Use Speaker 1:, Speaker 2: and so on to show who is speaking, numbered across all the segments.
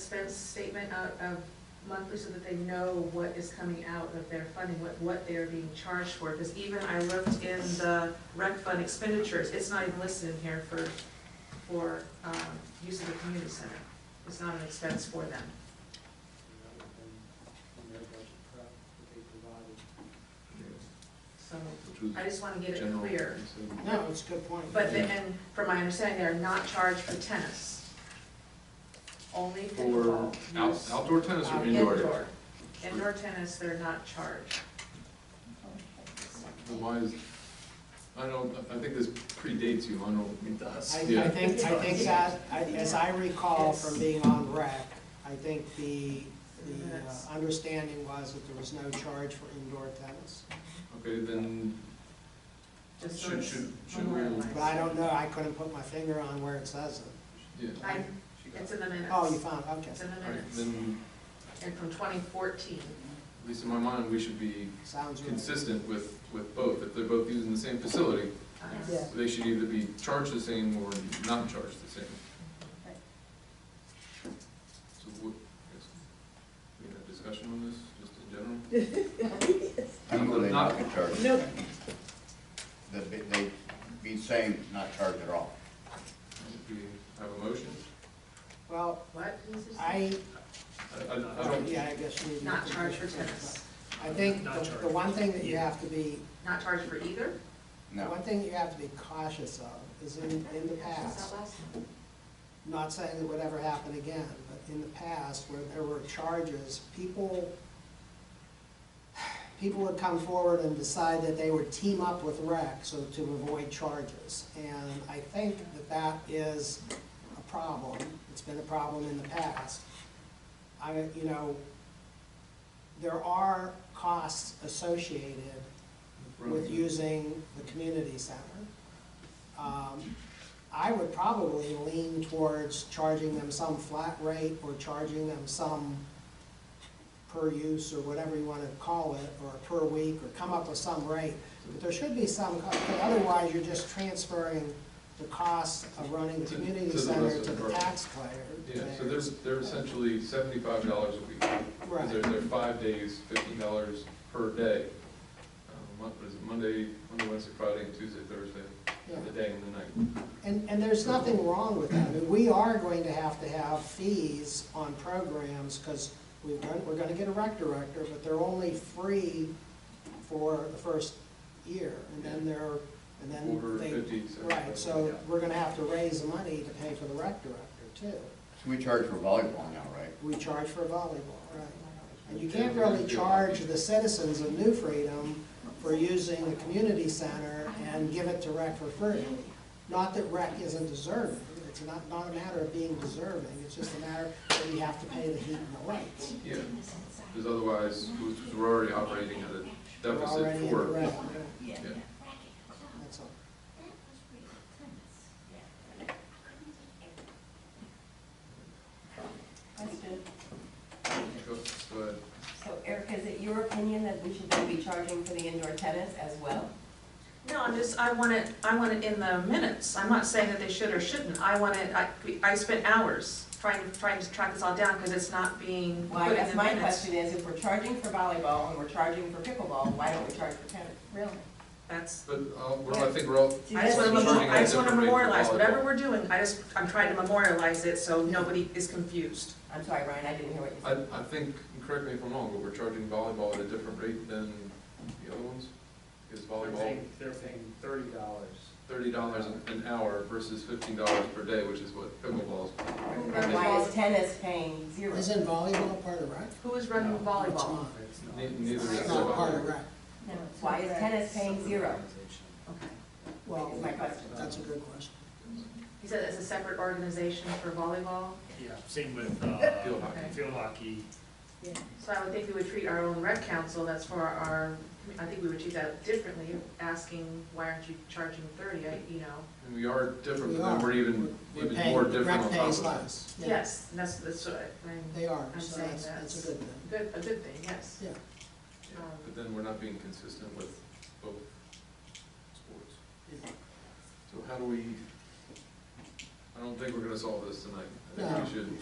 Speaker 1: expense statement out of monthly so that they know what is coming out of their funding, what, what they're being charged for. Because even I looked in the rec fund expenditures, it's not even listed in here for, for, um, use of the community center. It's not an expense for them.
Speaker 2: in their budget prep that they provided.
Speaker 1: So
Speaker 3: Which was
Speaker 1: I just want to get it
Speaker 3: general.
Speaker 1: clear.
Speaker 2: No, it's a good point.
Speaker 1: But then, and from my understanding, they are not charged for tennis. Only
Speaker 3: For
Speaker 1: pickleball.
Speaker 3: out-
Speaker 2: Yes.
Speaker 3: outdoor tennis or indoor?
Speaker 1: Indoor. Indoor tennis, they're not charged.
Speaker 3: Then Why is, I don't, I think this predates you, I don't. It
Speaker 2: I,
Speaker 3: does.
Speaker 2: I
Speaker 3: Yeah,
Speaker 2: think, I think that, I- as I recall from being on rec, I think the, the uh,
Speaker 1: Yes.
Speaker 2: understanding was that there was no charge for indoor tennis.
Speaker 3: okay, then
Speaker 1: Just so
Speaker 3: should,
Speaker 1: it's
Speaker 3: should, should we,
Speaker 1: memorialized.
Speaker 2: But I don't know, I couldn't put my finger on where it says it.
Speaker 3: yeah.
Speaker 1: I, it's in the minutes.
Speaker 2: Oh, you found, okay.
Speaker 1: It's in
Speaker 3: All
Speaker 1: the
Speaker 3: right,
Speaker 1: minutes,
Speaker 3: then,
Speaker 1: and from twenty fourteen.
Speaker 3: at least in my mind, we should be
Speaker 2: Sounds right.
Speaker 3: consistent with, with both. If they're both using the same facility,
Speaker 1: Uh,
Speaker 2: Yeah.
Speaker 3: they should either be charged the same or not charged the same. So what, I guess, we can have discussion on this, just in general?
Speaker 4: I don't believe
Speaker 3: Not-
Speaker 4: not get charged.
Speaker 5: No.
Speaker 4: The- They be saying not charged at all.
Speaker 3: Do we have a motion?
Speaker 2: Well,
Speaker 1: What?
Speaker 2: I,
Speaker 3: I, I- I don't,
Speaker 2: yeah, I guess you.
Speaker 1: Not charged for tennis,
Speaker 2: I think the, the one thing that you have to be
Speaker 1: not charged for either?
Speaker 2: The
Speaker 4: No.
Speaker 2: One thing you have to be cautious of is in, in the past, not saying it would ever happen again, but in the past where there were charges, people, people would come forward and decide that they would team up with rec so to avoid charges. And I think that that is a problem. It's been a problem in the past. I, you know, there are costs associated with using the community center. Um, I would probably lean towards charging them some flat rate or charging them some per use or whatever you want to call it, or per week, or come up with some rate. But there should be some, co- but otherwise you're just transferring the cost of running the
Speaker 3: To-
Speaker 2: community
Speaker 3: to the rest
Speaker 2: center
Speaker 3: of
Speaker 2: to
Speaker 3: the
Speaker 2: the
Speaker 3: program.
Speaker 2: taxpayer.
Speaker 3: yeah, so they're, they're essentially seventy-five dollars a week. They're,
Speaker 2: Right,
Speaker 3: they're five days, fifteen dollars per day. Uh, Mon- What is it, Monday, Monday, Wednesday, Friday, and Tuesday, Thursday,
Speaker 2: yeah.
Speaker 3: the day and the night.
Speaker 2: And, and there's nothing wrong with that. I mean, we are going to have to have fees on programs, because we've done, we're gonna get a rec director, but they're only free for the first year, and then they're, and
Speaker 3: Quarter,
Speaker 2: then they,
Speaker 3: fifty, seventy.
Speaker 2: right, so we're gonna have to raise money to pay for the rec director too.
Speaker 4: So we charge for volleyball now, right?
Speaker 2: We charge for volleyball, right? And you can't really charge the citizens of New Freedom for using the community center and give it to rec for free. Not that rec isn't deserving, it's not, not a matter of being deserving, it's just a matter that we have to pay the heat and the lights.
Speaker 3: Yeah, because otherwise, we- we're already operating at a
Speaker 2: We're
Speaker 3: deficit
Speaker 2: already in the
Speaker 3: for,
Speaker 2: red,
Speaker 3: yeah.
Speaker 2: that's all.
Speaker 5: Question.
Speaker 3: Go- go ahead.
Speaker 5: So Eric, is it your opinion that we should then be charging for the indoor tennis as well?
Speaker 1: No, I'm just, I want it, I want it in the minutes, I'm not saying that they should or shouldn't, I want it, I, I spent hours trying, trying to track this all down, because it's not being
Speaker 5: Well,
Speaker 1: put
Speaker 5: I
Speaker 1: in
Speaker 5: guess
Speaker 1: the
Speaker 5: my
Speaker 1: minutes.
Speaker 5: question is, if we're charging for volleyball and we're charging for pickleball, why don't we charge for tennis? Really?
Speaker 1: That's,
Speaker 3: But, uh, we're all- I think we're all,
Speaker 1: I just wanna,
Speaker 3: that's-
Speaker 1: memo- I just wanna
Speaker 3: Charging at a different rate for
Speaker 1: memorialize, whatever
Speaker 3: volleyball.
Speaker 1: we're doing, I just, I'm trying to memorialize it, so nobody is confused.
Speaker 5: I'm sorry, Ryan, I didn't hear what you
Speaker 3: I,
Speaker 5: said.
Speaker 3: I think, and correct me if I'm wrong, but we're charging volleyball at a different rate than the other ones? Is volleyball
Speaker 6: They're paying thirty dollars.
Speaker 3: thirty dollars an hour versus fifteen dollars per day, which is what pickleball is.
Speaker 5: Then Why is tennis paying zero?
Speaker 2: Isn't volleyball part of rec?
Speaker 1: Who is running
Speaker 2: It's
Speaker 1: volleyball?
Speaker 2: not.
Speaker 3: Ne- Neither is
Speaker 2: It's not part of
Speaker 3: volleyball.
Speaker 2: rec.
Speaker 5: No. Why is tennis paying zero?
Speaker 1: Okay.
Speaker 2: Well,
Speaker 5: Is my question.
Speaker 2: that's a good question.
Speaker 1: He said it's a separate organization for volleyball,
Speaker 6: Yeah, same with, uh,
Speaker 3: Field hockey.
Speaker 6: field hockey.
Speaker 1: so I would think we would treat our own rec council, that's for our, I think we would treat that differently, asking, why aren't you charging thirty, I, you know?
Speaker 3: And we are different,
Speaker 2: We
Speaker 3: but then
Speaker 2: are.
Speaker 3: we're even,
Speaker 2: We're
Speaker 3: even
Speaker 2: paying-
Speaker 3: more different
Speaker 2: rec
Speaker 3: on top
Speaker 2: pays
Speaker 3: of that.
Speaker 2: less. Yeah,
Speaker 1: Yes, and that's, that's what I'm,
Speaker 2: They are,
Speaker 1: I'm
Speaker 2: so
Speaker 1: saying
Speaker 2: that's, that's
Speaker 1: that's-
Speaker 2: a good thing.
Speaker 1: good, a good thing, yes.
Speaker 2: Yeah.
Speaker 3: Yeah, But then we're not being consistent with both sports. So how do we, I don't think we're gonna solve this tonight.
Speaker 7: I think we should.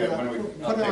Speaker 2: Why don't we, uh,
Speaker 4: put it
Speaker 2: why
Speaker 4: on-
Speaker 2: don't we-
Speaker 4: put it
Speaker 2: I'll
Speaker 4: on